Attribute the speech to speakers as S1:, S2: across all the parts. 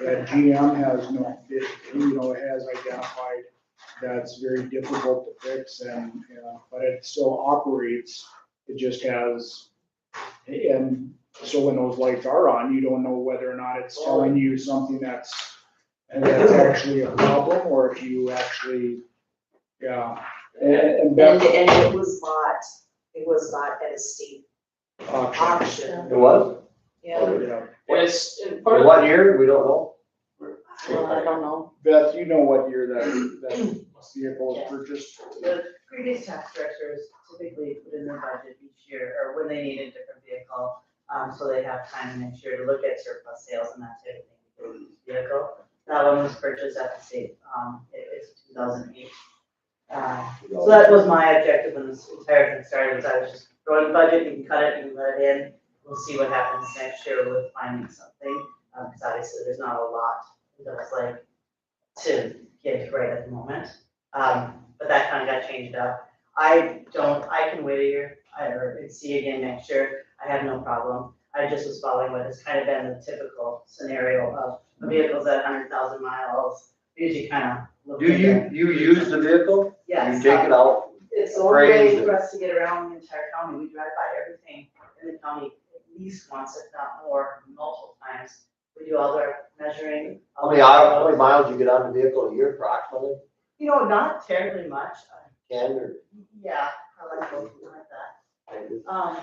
S1: that GM has no, it, you know, has identified that's very difficult to fix and, you know, but it still operates. It just has, and so when those lights are on, you don't know whether or not it's telling you something that's, and that's actually a problem, or if you actually, yeah. And, and
S2: And,
S1: Beth,
S2: and it was bought, it was bought at a steep
S1: options,
S2: auction,
S3: It was?
S2: yeah.
S1: yeah.
S4: And it's, and part
S3: In
S4: of
S3: what year? We don't know.
S2: Well, I don't know.
S1: Beth, you know what year that, that vehicle was purchased?
S5: The previous tax directors typically put in their budget each year, or when they need a different vehicle, um, so they have time next year to look at surplus sales and that type of thing. for the Vehicle, that one was purchased at the state, um, it, it's two thousand eight. Uh, so that was my objective when this entire thing started, was I was just throwing budget, you can cut it, you can let it in, we'll see what happens next year with finding something. Um, cause obviously there's not a lot that's like to get right at the moment. Um, but that kind of got changed up. I don't, I can wait a year, I, or see again next year, I have no problem. I just was following what has kind of been the typical scenario of vehicles at hundred thousand miles, usually kind of look
S3: Do
S5: at that.
S3: you, you use the vehicle?
S5: Yes.
S3: You take it out?
S5: It's the only way
S3: Crazy.
S5: for us to get around the entire county, we drive by everything in the county at least once, if not more, multiple times. We do all our measuring.
S3: How many, hours- how many miles you get on the vehicle a year approximately?
S5: You know, not terribly much, uh,
S3: Ten or?
S5: yeah, I like something like that. Um,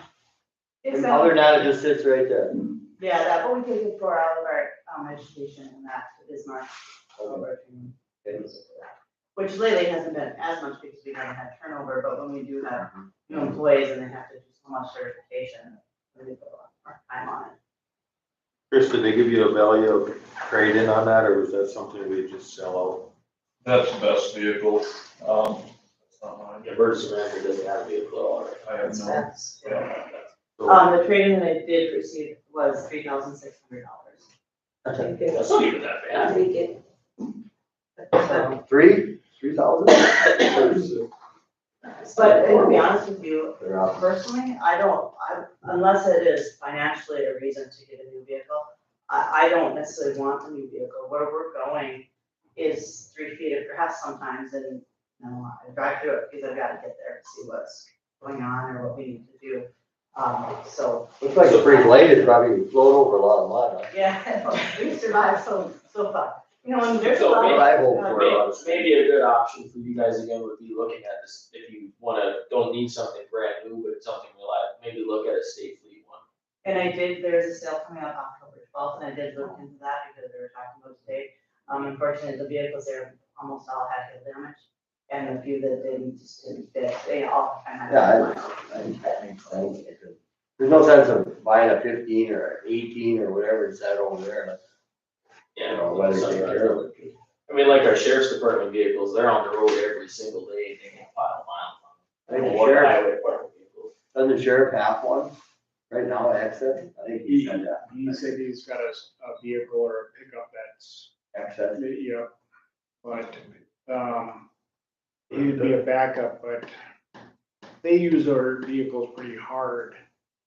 S5: it's,
S3: And
S5: not-
S3: other than that, it just sits right there.
S5: yeah, that, but we take it for all of our, um, education and that to Bismarck. all of our training. Which lately hasn't been as much because we haven't had turnover, but when we do have new
S3: Mm-hmm.
S5: employees and they have to do so much certification, we put a lot more time on it.
S6: Chris, did they give you a value of trade-in on that, or was that something we just sell
S7: That's the best vehicle, um, it's not mine.
S3: Emergency manager doesn't have a vehicle at all.
S7: I have no,
S5: That's-
S7: yeah.
S6: out?
S5: Um, the trade-in that I did receive was three thousand six hundred dollars.
S3: That's not even that
S2: I think it,
S5: So,
S3: Three, three thousand?
S5: but to be honest with you,
S3: They're out.
S5: personally, I don't, I, unless it is financially a reason to get a new vehicle, I, I don't necessarily want a new vehicle. Where we're going is three feet of grass sometimes and, you know, I drive through it because I've gotta get there to see what's going on or what we need to do. Um, so
S3: Looks like a pretty late, it probably flowed over a lot of mud. huh?
S5: Yeah, we survived so, so far. You know, and there's a
S8: So
S5: lot
S3: That's
S5: of,
S3: what I hope for,
S8: May-
S3: honestly.
S8: Maybe a good option for you guys again would be looking at this, if you wanna, don't need something brand new, but something reliable, maybe look at a state fleet one.
S5: and I did, there's a sale coming up October twelfth, and I did look into that because they were talking about today. Um, unfortunately, the vehicles there almost all had hail damage, and a few that didn't, just didn't fit, they all kind of.
S3: Yeah, I think that makes sense. There's no sense of buying a fifteen or eighteen or whatever it's at over there, you know, whether
S8: something
S3: they
S8: like
S3: care
S8: that.
S3: of it.
S8: I mean, like our sheriff's department vehicles, they're on the road every single day, they can pile miles on.
S3: I think
S8: them.
S3: the
S8: Or
S3: sheriff,
S8: highway department vehicles.
S3: doesn't the sheriff have one right now at Exit? I think he said that,
S1: He said he's got a, s- a vehicle or a pickup that's,
S3: Exit.
S1: yeah, but, um, it'd be a backup, but they use their vehicles pretty hard.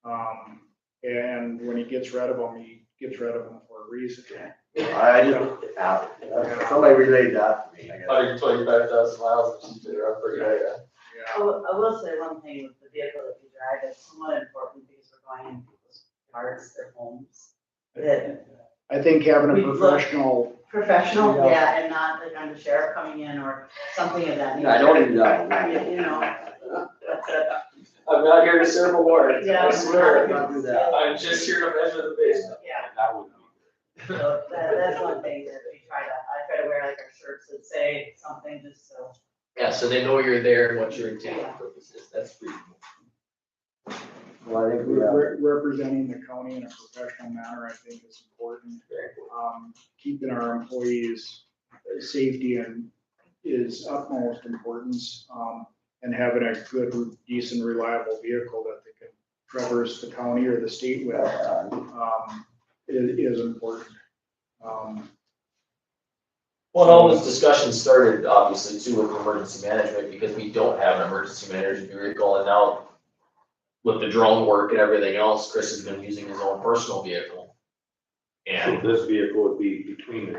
S1: Um, and when he gets rid of them, he gets rid of them for a reason.
S3: I just, Uh, have it. somebody relayed that to me, I guess.
S8: Hundred twenty-five thousand miles, and she's been around for a year.
S1: Yeah.
S5: I will, Oh, I will say one thing with the vehicle that we drive, it's somewhat important because we're going in people's yards, their homes. That
S1: I think having
S5: We'd
S1: a
S5: love-
S1: professional,
S5: professional,
S3: Yeah.
S5: yeah, and not like I'm the sheriff coming in or something of that nature.
S3: I don't even
S5: I
S3: know.
S5: mean, you know.
S8: I'm not here to serve a warrant,
S5: Yeah.
S8: I swear,
S3: Not do that.
S8: I'm just here to measure the basement.
S5: Yeah,
S6: That would be.
S5: so that, that's one thing that we try to, I try to wear like our shirts that say something just so.
S8: Yeah, so they know you're there and what your intent and purpose is, that's pretty cool.
S3: Well, I think we have.
S1: re- representing the county in a professional manner, I think is important. Um, keeping our employees' uh, safety and is utmost importance. Um, and having a good, decent, reliable vehicle that they can traverse the county or the state with,
S3: uh,
S1: um, i- is important. Um,
S8: Well, and all this discussion started obviously too with emergency management because we don't have an emergency management vehicle and now with the drone work and everything else, Chris has been using his own personal vehicle.
S9: and
S3: So this vehicle would be between the